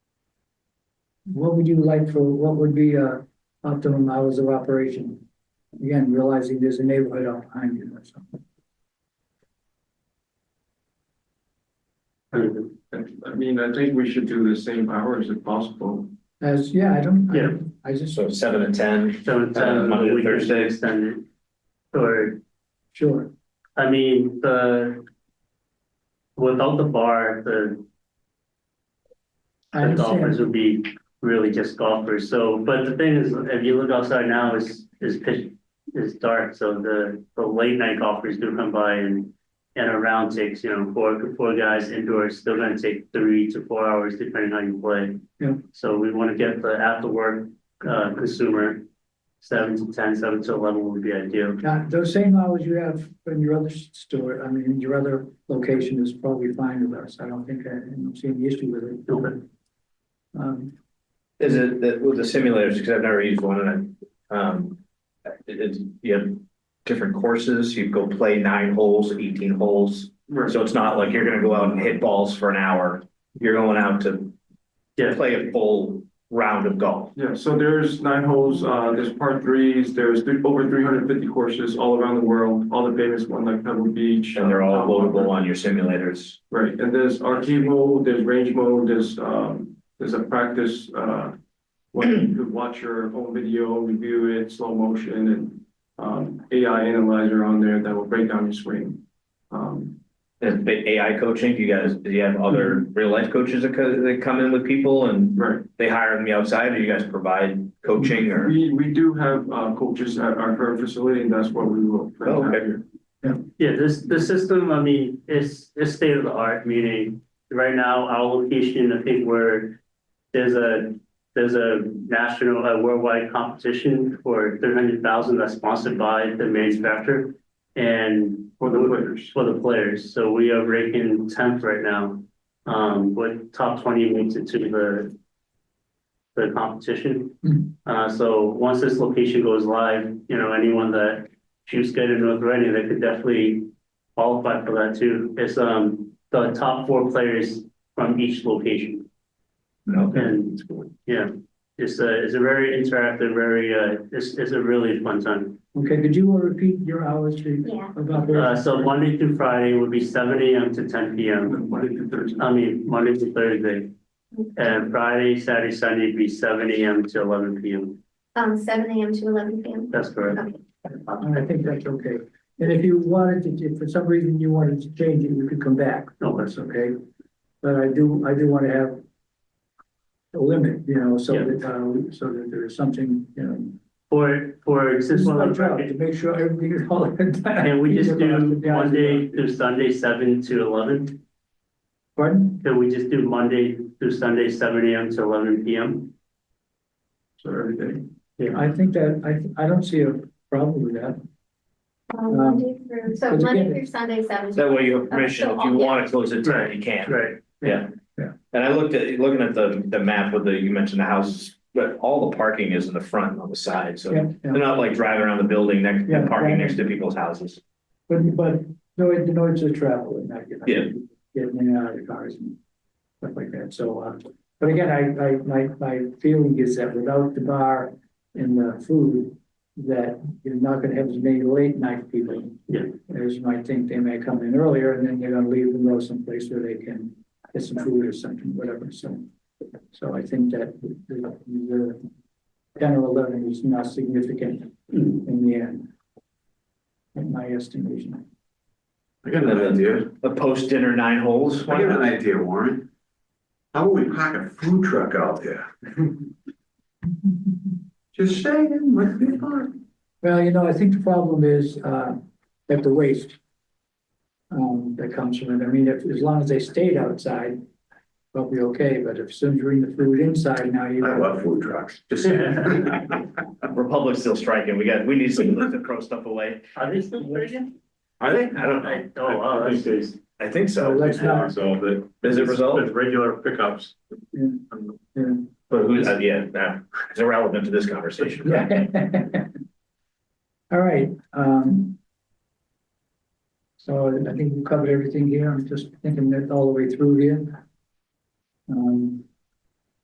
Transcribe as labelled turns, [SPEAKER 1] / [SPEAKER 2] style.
[SPEAKER 1] What would you like for, what would be uh optimum hours of operation? Again, realizing there's a neighborhood out behind you or something.
[SPEAKER 2] I I mean, I think we should do the same hours if possible.
[SPEAKER 1] As, yeah, I don't. I-
[SPEAKER 3] Yeah.
[SPEAKER 1] I just,
[SPEAKER 4] So seven to ten,
[SPEAKER 3] So it's
[SPEAKER 4] Uh,
[SPEAKER 3] uh,
[SPEAKER 4] Monday to
[SPEAKER 3] we can
[SPEAKER 4] Thursday.
[SPEAKER 3] extend it. Or,
[SPEAKER 1] sure,
[SPEAKER 3] I mean, the. Without the bar, the,
[SPEAKER 1] I
[SPEAKER 3] the
[SPEAKER 1] understand,
[SPEAKER 3] golfers would be really just golfers, so, but the thing is, if you look outside now, it's, it's pitch. It's dark, so the, the late night golfers do come by and, and a round takes, you know, four, four guys indoors, still gonna take three to four hours depending how you play.
[SPEAKER 1] Yeah.
[SPEAKER 3] So we wanna get the after work, uh, consumer, seven to ten, seven to eleven would be ideal.
[SPEAKER 1] now, those same hours you have in your other store, I mean, in your other location is probably fine with us, I don't think I, I don't see any issue with it.
[SPEAKER 3] Okay.
[SPEAKER 1] Um,
[SPEAKER 4] is it, that with the simulators, because I've never used one and I, um. It, it's, you have different courses, you go play nine holes, eighteen holes.
[SPEAKER 3] Right.
[SPEAKER 4] So it's not like you're gonna go out and hit balls for an hour, you're going out to
[SPEAKER 3] Yeah.
[SPEAKER 4] play a full round of golf.
[SPEAKER 2] Yeah, so there's nine holes, uh, there's part threes, there's th- over three hundred fifty courses all around the world, all the famous ones like Pebble Beach.
[SPEAKER 4] And they're all
[SPEAKER 2] uh,
[SPEAKER 4] loadable on your simulators.
[SPEAKER 2] Right, and there's arcade mode, there's range mode, there's, um, there's a practice, uh, where you could watch your own video, review it, slow motion, and, um, AI analyzer on there that will break down your swing. Um,
[SPEAKER 4] And the AI coaching, you guys, do you have other real life coaches that co- that come in with people and
[SPEAKER 2] right,
[SPEAKER 4] they hire them outside or you guys provide coaching or?
[SPEAKER 2] We, we do have uh, coaches at our current facility, and that's what we will. plan to have
[SPEAKER 4] Okay.
[SPEAKER 2] here.
[SPEAKER 3] Yeah, this, the system, I mean, it's, it's state of the art, meaning right now, our location, I think we're, there's a, there's a national, a worldwide competition for three hundred thousand that's sponsored by the manufacturer. And
[SPEAKER 2] For the players.
[SPEAKER 3] for the players, so we are ranking tenth right now. Um, with top twenty makes it to the. The
[SPEAKER 1] Hmm.
[SPEAKER 3] competition. Uh, so once this location goes live, you know, anyone that shoots good in North Reading, they could definitely. Qualify for that too. It's um the top four players from each location and, yeah. It's a, it's a very interactive, very, uh, it's, it's a really fun time.
[SPEAKER 1] okay, could you repeat your hours please?
[SPEAKER 5] Yeah.
[SPEAKER 1] About.
[SPEAKER 3] Uh, so Monday through Friday would be seven AM to ten PM.
[SPEAKER 2] Monday through Thursday.
[SPEAKER 3] I mean, Monday to Thursday. And Friday, Saturday, Sunday would be seven AM to eleven PM.
[SPEAKER 5] Um, seven AM to eleven PM.
[SPEAKER 3] That's correct.
[SPEAKER 5] Okay. Um,
[SPEAKER 1] I think that's okay, and if you wanted to, if for some reason you wanted to change it, you could come back.
[SPEAKER 3] No, that's
[SPEAKER 1] That's okay, but I do, I do want to have a limit, you know, so
[SPEAKER 3] Yeah.
[SPEAKER 1] that, uh, so that there is something, you know.
[SPEAKER 3] for, for
[SPEAKER 1] This is
[SPEAKER 3] existing.
[SPEAKER 1] my job, to make sure everything is all.
[SPEAKER 3] And we just do Monday
[SPEAKER 1] Monday.
[SPEAKER 3] through Sunday, seven to eleven.
[SPEAKER 1] Pardon?
[SPEAKER 3] Can we just do Monday through Sunday, seven AM to eleven PM?
[SPEAKER 2] So everything.
[SPEAKER 1] I think that, I, th- I don't see a problem with that.
[SPEAKER 5] Um, Monday through, so
[SPEAKER 1] Could you
[SPEAKER 5] Monday
[SPEAKER 1] give it-
[SPEAKER 5] through Sunday, seven.
[SPEAKER 4] That way you have
[SPEAKER 5] Okay,
[SPEAKER 4] permission,
[SPEAKER 5] Uh, so
[SPEAKER 4] if you
[SPEAKER 5] I'll-
[SPEAKER 4] want to close at ten,
[SPEAKER 3] Right,
[SPEAKER 4] you can.
[SPEAKER 3] Right.
[SPEAKER 4] Yeah.
[SPEAKER 1] Yeah.
[SPEAKER 4] And I looked at, looking at the, the map with the, you mentioned the houses, but all the parking is in the front and on the side, so
[SPEAKER 1] Yeah,
[SPEAKER 4] they're
[SPEAKER 1] yeah.
[SPEAKER 4] not like driving around the building next,
[SPEAKER 1] Yeah,
[SPEAKER 4] and parking
[SPEAKER 1] right.
[SPEAKER 4] next to people's houses.
[SPEAKER 1] But, but, no, it denotes the travel and not, you know.
[SPEAKER 4] Yeah.
[SPEAKER 1] Getting in and out of the cars and stuff like that, so, uh, but again, I, I, my, my feeling is that without the bar and the food, that you're not gonna have as many late night people.
[SPEAKER 3] Yeah.
[SPEAKER 1] There's, you might think they may come in earlier and then they're gonna leave and go someplace where they can get some food or something, whatever, so. So I think that the, the ten or eleven is not significant in the end. In my estimation.
[SPEAKER 6] I got another idea.
[SPEAKER 4] The post-dinner nine holes.
[SPEAKER 6] I got an idea, Warren. How about we park a food truck out there? Just saying, let's be fun.
[SPEAKER 1] Well, you know, I think the problem is, uh, that the waste. Um, that comes from it, I mean, if, as long as they stayed outside, probably okay, but if soon as you bring the food inside, now you.
[SPEAKER 6] I love food trucks, just saying.
[SPEAKER 4] Republic's still striking, we got, we need some to throw stuff away.
[SPEAKER 3] Are they still Reagan?
[SPEAKER 4] Are they? I don't know,
[SPEAKER 3] I, oh, wow, that's crazy.
[SPEAKER 4] I think
[SPEAKER 1] So
[SPEAKER 4] so.
[SPEAKER 1] let's not,
[SPEAKER 6] Resolve it.
[SPEAKER 4] Is it resolved?
[SPEAKER 6] regular pickups.
[SPEAKER 1] yeah.
[SPEAKER 4] But who's, uh, yeah, nah, it's irrelevant to this conversation.
[SPEAKER 1] Yeah. All right, um. So I think we covered everything here, I'm just thinking that all the way through here. Um.